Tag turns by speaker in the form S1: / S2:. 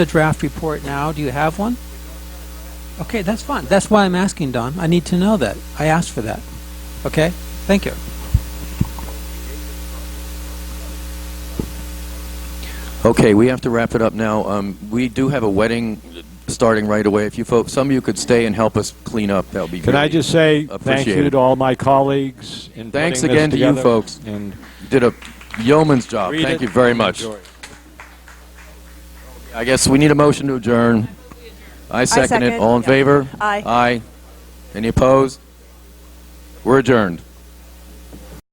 S1: the draft report now? Do you have one? Okay, that's fine. That's why I'm asking, Don. I need to know that. I asked for that. Okay? Thank you.
S2: Okay, we have to wrap it up now. Um, we do have a wedding starting right away. If you folks, some of you could stay and help us clean up, that would be
S3: Can
S2: great.
S3: I just say thank
S2: Appreciate
S3: you
S2: it.
S3: to all my colleagues in
S2: Thanks
S3: putting this
S2: again to you
S3: together
S2: folks.
S3: And
S2: You did a yeoman's job.
S3: read
S2: Thank
S3: it
S2: you very
S3: and
S2: much.
S3: enjoy it.
S2: I guess we need a motion to adjourn. I second it.
S4: second.
S2: All in
S4: Yeah.
S2: favor?
S4: Aye.
S2: Aye. Any opposed? We're adjourned.